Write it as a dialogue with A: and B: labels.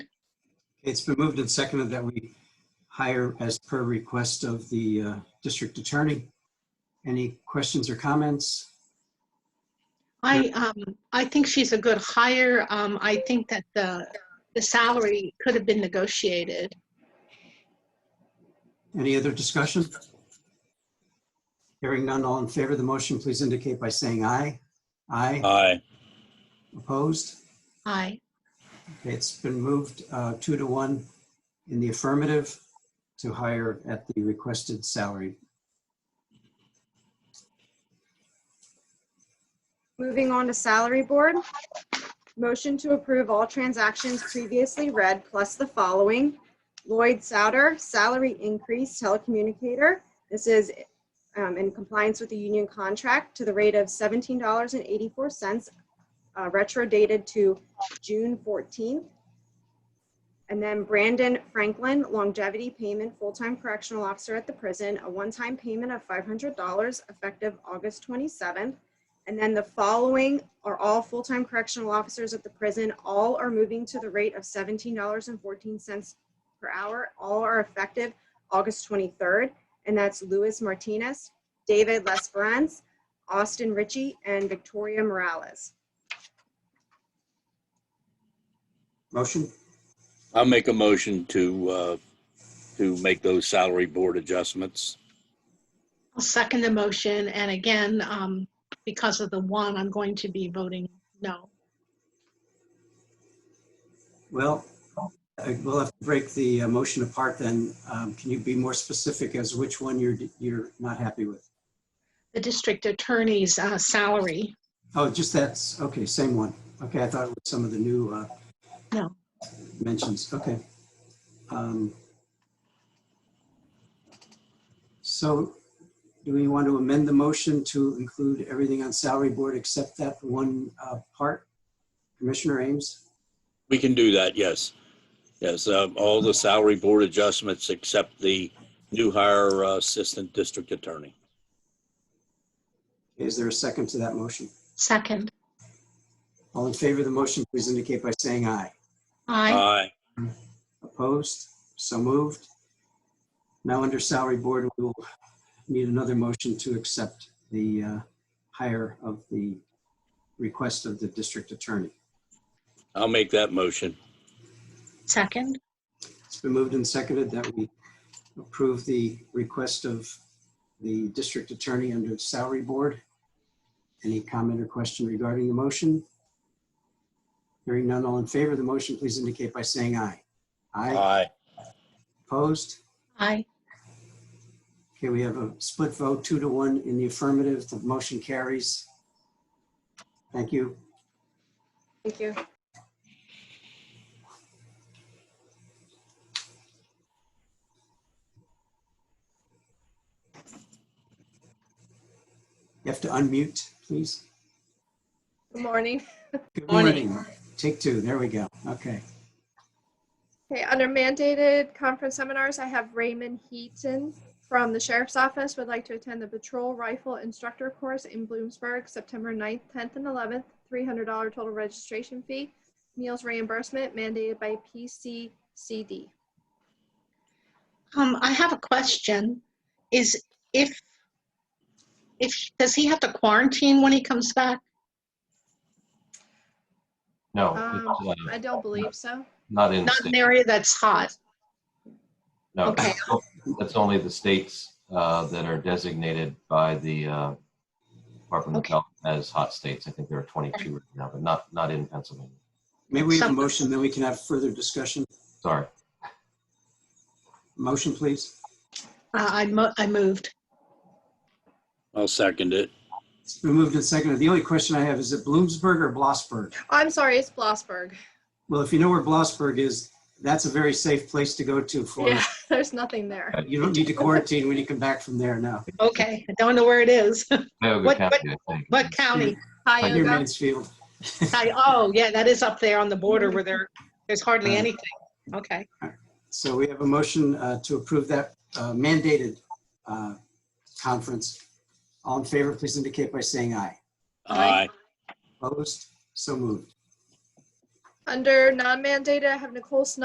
A: It's been moved and seconded that we hire as per request of the uh, district attorney. Any questions or comments?
B: I, um, I think she's a good hire. Um, I think that the, the salary could have been negotiated.
A: Any other discussion? Hearing none, all in favor of the motion, please indicate by saying aye. Aye.
C: Aye.
A: Opposed?
B: Aye.
A: Okay, It's been moved uh, two to one in the affirmative to hire at the requested salary.
D: Moving on to salary board. Motion to approve all transactions previously read plus the following. Lloyd Souter, salary increase telecommunicator. This is um, in compliance with the union contract to the rate of $17.84, uh, retro dated to June 14th. And then Brandon Franklin, longevity payment, full-time correctional officer at the prison, a one-time payment of $500 effective August 27th. And then the following are all full-time correctional officers at the prison. All are moving to the rate of $17.14 per hour. All are effective August 23rd. And that's Luis Martinez, David Lesperance, Austin Ritchie, and Victoria Morales.
A: Motion?
C: I'll make a motion to, uh, to make those salary board adjustments.
B: I'll second the motion. And again, um, because of the one, I'm going to be voting no.
A: Well, I- we'll have to break the uh, motion apart then. Um, Can you be more specific as which one you're, you're not happy with?
B: The district attorney's, uh, salary.
A: Oh, just that's, okay, same one. Okay, I thought it was some of the new uh,
B: No.
A: mentions, okay. Um, So do we want to amend the motion to include everything on salary board except that one uh, part? Commissioner Ames?
C: We can do that, yes. Yes, um, all the salary board adjustments except the new hire uh, assistant district attorney.
A: Is there a second to that motion?
B: Second.
A: All in favor of the motion, please indicate by saying aye.
B: Aye.
C: Aye.
A: Opposed? So moved. Now, under salary board, we will need another motion to accept the uh, hire of the request of the district attorney.
C: I'll make that motion.
B: Second.
A: It's been moved and seconded that we approve the request of the district attorney under salary board. Any comment or question regarding the motion? Hearing none, all in favor of the motion, please indicate by saying aye. Aye.
C: Aye.
A: Opposed?
B: Aye.
A: Okay, we have a split vote, two to one in the affirmative. The motion carries. Thank you.
D: Thank you.
A: You have to unmute, please.
D: Good morning.
A: Good
E: Morning.
A: Take two. There we go. Okay.
D: Okay, under mandated conference seminars, I have Raymond Heaton from the Sheriff's Office would like to attend the Patrol Rifle Instructor Course in Bloomsburg, September 9th, 10th, and 11th, $300 total registration fee, meals reimbursement mandated by PCCD.
B: Um, I have a question. Is if, if, does he have to quarantine when he comes back?
F: No,
D: Um,
F: it's, uh,
D: I don't believe so.
F: not in the
B: Not an
F: state.
B: area that's hot.
F: No,
B: okay.
F: that's only the states uh, that are designated by the uh, Department of
B: Okay.
F: Health as hot states. I think there are 22 right now, but not, not in Pennsylvania.
A: Maybe we have a
B: Some-
A: motion, then we can have further discussion.
F: Sorry.
A: Motion, please.
B: Uh, I mo- I moved.
C: I'll second it.
A: It's been moved and seconded. The only question I have, is it Bloomsburg or Blossburg?
D: I'm sorry, it's Blossburg.
A: Well, if you know where Blossburg is, that's a very safe place to go to for,
D: Yeah, there's nothing there.
A: you don't need to quarantine when you come back from there now.
B: Okay. I don't know where it is.
F: Cuyahoga
B: What-
F: County, I think.
B: What county?
A: Near
D: Tioga.
A: Mansfield.
B: I- Oh, yeah, that is up there on the border where there, there's hardly
A: Uh,
B: anything. Okay.
A: So we have a motion uh, to approve that uh, mandated uh, conference. All in favor, please indicate by saying aye.
C: Aye.
A: Opposed? So moved.
D: Under non-mandated, I have Nicole Snyder